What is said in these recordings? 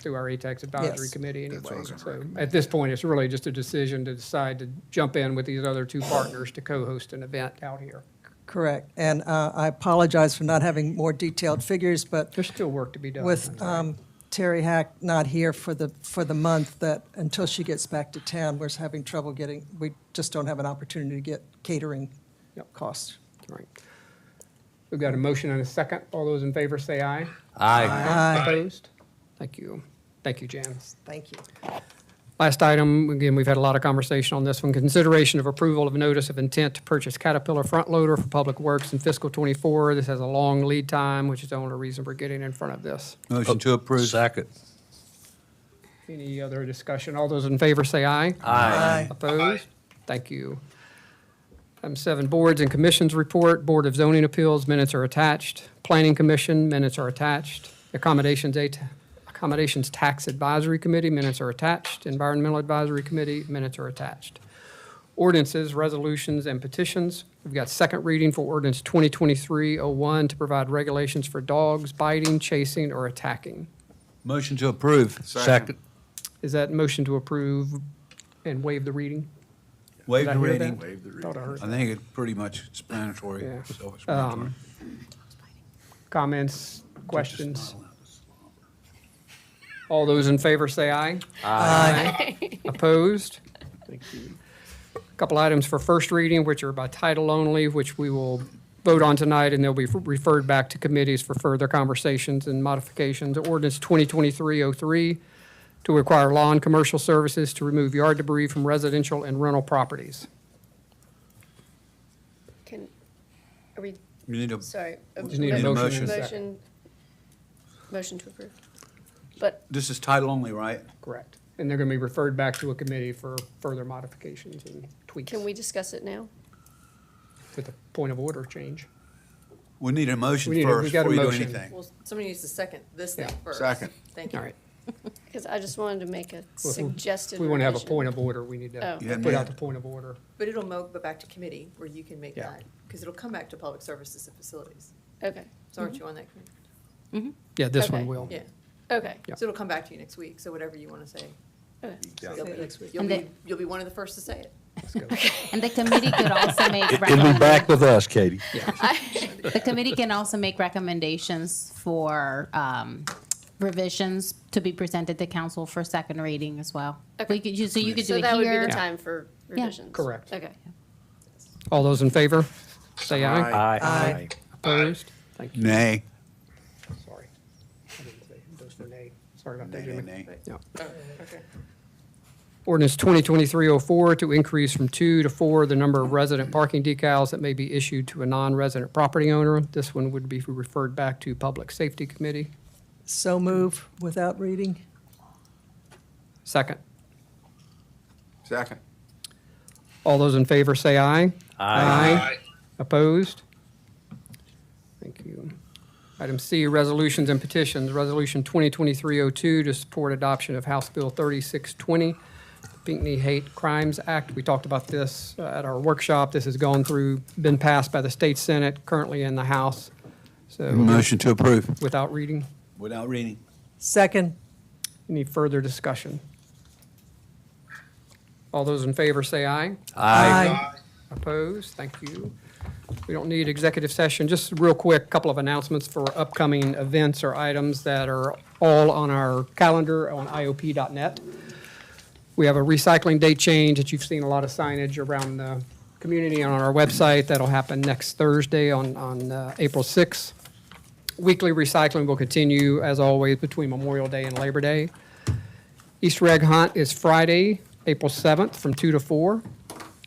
through our E ATAX advisory Yes. committee anyway. what I was gonna So At this point, it's really just a decision to decide to jump in with these other two partners to co-host an event out here. Correct. And uh, I apologize for not having more detailed figures, but There's still work to be done. with um, Terry Hack not here for the, for the month, that until she gets back to town, we're having trouble getting, we just don't have an opportunity to get catering Yep. costs. Right. We've got a motion and a second. All those in favor say aye. Aye. Opposed? Thank you. Thank you, Janice. Thank you. Last item, again, we've had a lot of conversation on this one. Consideration of approval of notice of intent to purchase Caterpillar front loader for Public Works in fiscal '24. This has a long lead time, which is the only reason we're getting in front of this. Motion to approve. Second. Any other discussion? All those in favor say aye. Aye. Opposed? Thank you. Item seven, boards and commissions report. Board of Zoning Appeals, minutes are attached. Planning Commission, minutes are attached. Accommodations, A- Accommodations Tax Advisory Committee, minutes are attached. Environmental Advisory Committee, minutes are attached. Ordinances, resolutions, and petitions. We've got second reading for ordinance 2023-01 to provide regulations for dogs biting, chasing, or attacking. Motion to approve. Second. Is that motion to approve and waive the reading? Waive Did I the hear reading. that? Thought I heard I think it's pretty much explanatory, Yeah. Um, self-explanatory. Comments, questions? All those in favor say aye. Aye. Opposed? Couple items for first reading, which are by title only, which we will vote on tonight, and they'll be referred back to committees for further conversations and modifications. Ordinance 2023-03 to require law and commercial services to remove yard debris from residential and rental properties. Can, are we, You need a, sorry. Mm. um, just need a motion and a second. Motion, motion to approve. But this is title only, right? Correct. And they're going to be referred back to a committee for further modifications and tweaks can we discuss it now? with a point of order change. We need a motion We need a- we first got a before you do motion. anything. Well, somebody needs to second this thing Yeah. first. Second. Thank you. All right. Because I just wanted to make a Well, if we- suggested If we want to have a revision. point of order, we need to Oh. You hadn't put yet. out the point of order. But it'll mo, go back to committee where you can make Yeah. that, because it'll come back to public services and facilities. Okay, So aren't you on that committee? Yeah, this one Okay. will. Yeah. okay, Yeah. So it'll come back to you next week, so whatever you want to say. okay. you'll be- You'll And be, then- you'll be one of the first to say it. Let's go. And the committee could also make. It'll be back with us, Katie. recommenda- The committee can also make recommendations for um, revisions to be presented to council for second reading as well. We could, you- so you could do So it that would be here. the time for revisions? Correct. Okay. All those in favor, say aye. Aye. Opposed? Thank you. Nay. Sorry. I didn't say Those for nay. Sorry about that, Nay, nay, Jimmy. nay. Yeah. Oh, Okay. Ordinance 2023-04 to increase from two to four the number of resident parking decals that may be issued to a non-resident property owner. This one would be referred back to Public Safety Committee. So move without reading? Second. Second. All those in favor say aye. Aye. Opposed? Thank you. Item C, resolutions and petitions. Resolution 2023-02 to support adoption of House Bill 3620, Pinckney Hate Crimes Act. We talked about this uh, at our workshop. This has gone through, been passed by the state senate, currently in the House. So Motion to approve. without reading, Without reading. Second? any further discussion? All those in favor say aye. Aye. Opposed? Thank you. We don't need executive session. Just real quick, a couple of announcements for upcoming events or items that are all on our calendar on IOP.net. We have a recycling date change that you've seen a lot of signage around the community and on our website. That'll happen next Thursday on, on uh, April 6th. Weekly recycling will continue, as always, between Memorial Day and Labor Day. Easter egg hunt is Friday, April 7th, from 2 to 4.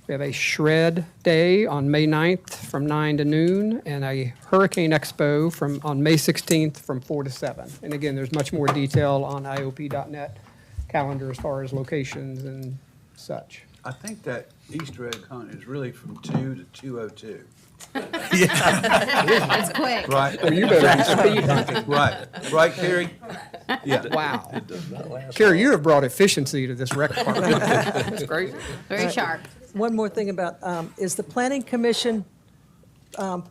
We have a shred day on May 9th from 9 to noon, and a hurricane expo from, on May 16th from 4 to 7. And again, there's much more detail on IOP.net calendar as far as locations and such. I think that Easter egg hunt is really from two to two oh two. It's quick. Right. Oh, You better be speed hunting. Right, right, Carrie? Yeah. Wow. Carrie, you have brought efficiency to this rec department. That's great. Very sharp. One more thing about, um, is the planning commission um,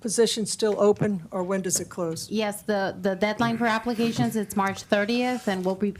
position still open, or when does it close? Yes, the, the deadline for applications, it's March 30th, and we'll be